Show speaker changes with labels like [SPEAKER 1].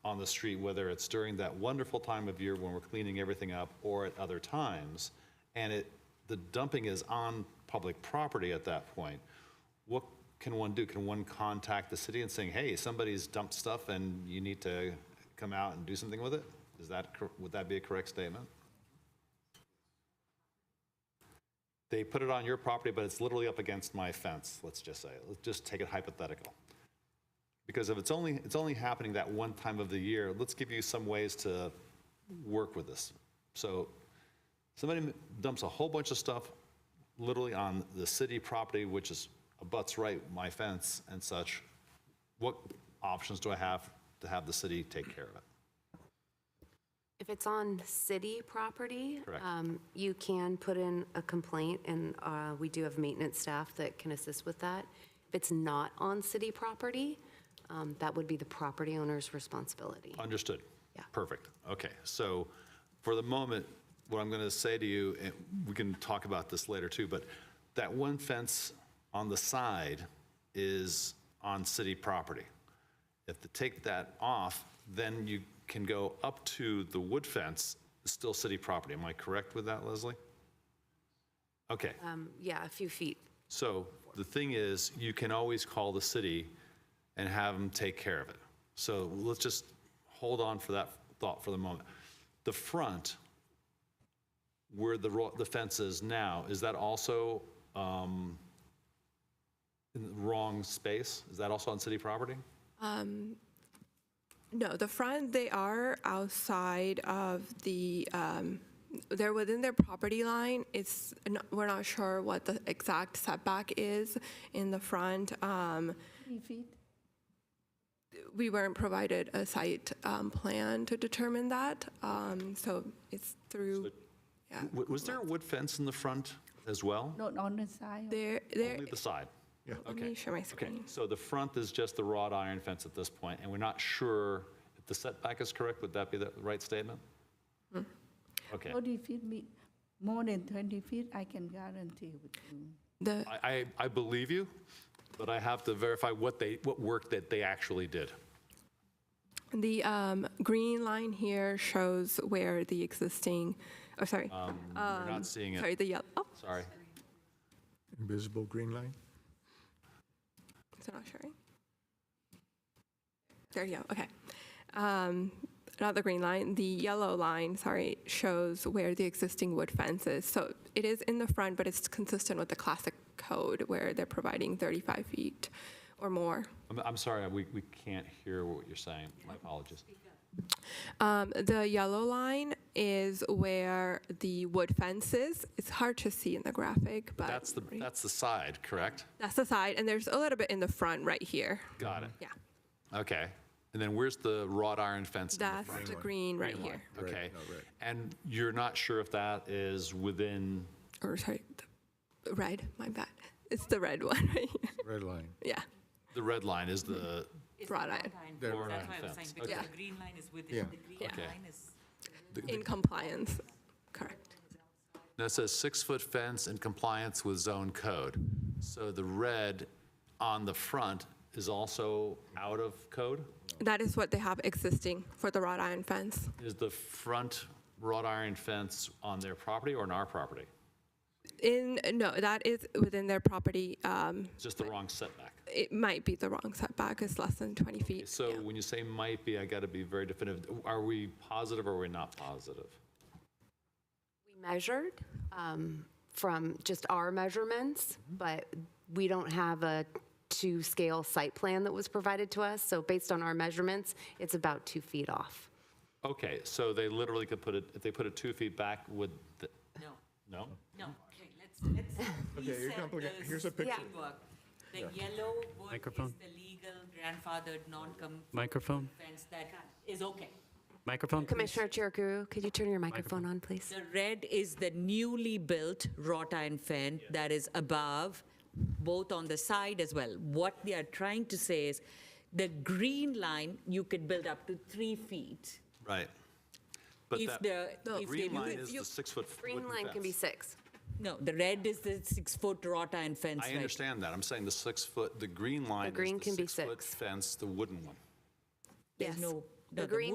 [SPEAKER 1] on the street, whether it's during that wonderful time of year when we're cleaning everything up or at other times, and it, the dumping is on public property at that point, what can one do? Can one contact the city and saying, hey, somebody's dumped stuff and you need to come out and do something with it? Is that, cor- would that be a correct statement? They put it on your property, but it's literally up against my fence, let's just say. Let's just take it hypothetical. Because if it's only, it's only happening that one time of the year, let's give you some ways to work with this. So somebody dumps a whole bunch of stuff literally on the city property, which is abuts right my fence and such. What options do I have to have the city take care of it?
[SPEAKER 2] If it's on city property,
[SPEAKER 1] Correct.
[SPEAKER 2] um, you can put in a complaint, and uh, we do have maintenance staff that can assist with that. If it's not on city property, um, that would be the property owner's responsibility.
[SPEAKER 1] Understood.
[SPEAKER 2] Yeah.
[SPEAKER 1] Perfect. Okay. So for the moment, what I'm going to say to you, and we can talk about this later too, but that one fence on the side is on city property. If they take that off, then you can go up to the wood fence, still city property. Am I correct with that, Leslie? Okay.
[SPEAKER 2] Um, Yeah, a few feet.
[SPEAKER 1] So the thing is, you can always call the city and have them take care of it. So let's just hold on for that thought for the moment. The front, where the, ro- the fence is now, is that also um, in the wrong space? Is that also on city property?
[SPEAKER 3] No, the front, they are outside of the, um, they're within their property line. It's, n- we're not sure what the exact setback is in the front. Um, We weren't provided a site um, plan to determine that, um, so it's through, yeah.
[SPEAKER 1] W- Was there a wood fence in the front as well?
[SPEAKER 4] Not on the side.
[SPEAKER 3] There, there,
[SPEAKER 1] Only the side? Yeah.
[SPEAKER 3] let me share my
[SPEAKER 1] Okay,
[SPEAKER 3] screen.
[SPEAKER 1] so the front is just the wrought iron fence at this point, and we're not sure if the setback is correct. Would that be the right statement?
[SPEAKER 3] Hmm.
[SPEAKER 1] Okay,
[SPEAKER 4] 40 feet, me- more than 20 feet, I can guarantee with you.
[SPEAKER 3] The,
[SPEAKER 1] I, I I believe you, but I have to verify what they, what work that they actually did.
[SPEAKER 3] the um, green line here shows where the existing, oh, sorry,
[SPEAKER 1] Um, We're not seeing
[SPEAKER 3] Um, sorry,
[SPEAKER 1] it,
[SPEAKER 3] the yellow, oh,
[SPEAKER 1] sorry.
[SPEAKER 5] Invisible green line?
[SPEAKER 3] Is it not showing? There you go. Okay. Um, not the green line, the yellow line, sorry, shows where the existing wood fence is. So it is in the front, but it's consistent with the classic code where they're providing 35 feet or more.
[SPEAKER 1] I'm, I'm sorry, we, we can't hear what you're saying. My apologies.
[SPEAKER 3] Um, the yellow line is where the wood fence is. It's hard to see in the graphic, but
[SPEAKER 1] That's the, that's the side, correct?
[SPEAKER 3] that's the side. And there's a little bit in the front right here.
[SPEAKER 1] Got it.
[SPEAKER 3] Yeah.
[SPEAKER 1] Okay. And then where's the wrought iron fence in the
[SPEAKER 3] That's the green right here.
[SPEAKER 1] Okay. And you're not sure if that is within
[SPEAKER 3] or sorry, the red. My bad. It's the red one, right?
[SPEAKER 5] Red line.
[SPEAKER 3] yeah,
[SPEAKER 1] The red line is the,
[SPEAKER 3] wrought iron.
[SPEAKER 5] The
[SPEAKER 1] wrought
[SPEAKER 6] That's
[SPEAKER 1] iron
[SPEAKER 6] why I was saying,
[SPEAKER 1] fence.
[SPEAKER 6] because
[SPEAKER 3] Okay.
[SPEAKER 6] the green line is
[SPEAKER 5] Yeah.
[SPEAKER 6] within, the green
[SPEAKER 3] Yeah.
[SPEAKER 1] Okay.
[SPEAKER 6] line is.
[SPEAKER 3] In compliance, correct.
[SPEAKER 1] that says six-foot fence in compliance with zone code. So the red on the front is also out of code?
[SPEAKER 3] That is what they have existing for the wrought iron fence.
[SPEAKER 1] Is the front wrought iron fence on their property or on our property?
[SPEAKER 3] In no, that is within their property. Um,
[SPEAKER 1] It's just the wrong setback.
[SPEAKER 3] it might be the wrong setback. It's less than 20 feet.
[SPEAKER 1] So
[SPEAKER 3] yeah.
[SPEAKER 1] when you say might be, I got to be very definitive. Are we positive or are we not positive?
[SPEAKER 2] We measured um, from just our measurements, but we don't have a two-scale site plan that was provided to us, so based on our measurements, it's about two feet off.
[SPEAKER 1] Okay, so they literally could put it, if they put it two feet back, would, the-
[SPEAKER 6] No,
[SPEAKER 1] no?
[SPEAKER 6] no, okay, let's, let's.
[SPEAKER 5] Okay, you're
[SPEAKER 6] reset
[SPEAKER 5] complicating.
[SPEAKER 6] the
[SPEAKER 5] Here's a picture.
[SPEAKER 6] framework. The yellow wood is
[SPEAKER 7] Microphone.
[SPEAKER 6] the legal grandfathered non-com
[SPEAKER 7] Microphone.
[SPEAKER 6] fence that is okay.
[SPEAKER 7] Microphone.
[SPEAKER 2] Commissioner Chiraguru, could you turn your microphone on, please?
[SPEAKER 6] The red is the newly built wrought iron fence that is above, both on the side as well. What they are trying to say is, the green line, you could build up to three feet.
[SPEAKER 1] Right. But
[SPEAKER 6] If
[SPEAKER 1] that-
[SPEAKER 6] the-
[SPEAKER 1] the
[SPEAKER 6] if
[SPEAKER 1] green
[SPEAKER 6] they-
[SPEAKER 1] line is the six-foot
[SPEAKER 2] Green line can be six.
[SPEAKER 6] No, the red is the six-foot wrought iron fence.
[SPEAKER 1] I
[SPEAKER 6] right?
[SPEAKER 1] understand that. I'm saying the six-foot, the green line is
[SPEAKER 2] green
[SPEAKER 1] the
[SPEAKER 2] can be
[SPEAKER 1] six-foot
[SPEAKER 2] six.
[SPEAKER 1] fence, the wooden one.
[SPEAKER 6] There's
[SPEAKER 2] Yes.
[SPEAKER 6] no No,
[SPEAKER 2] The green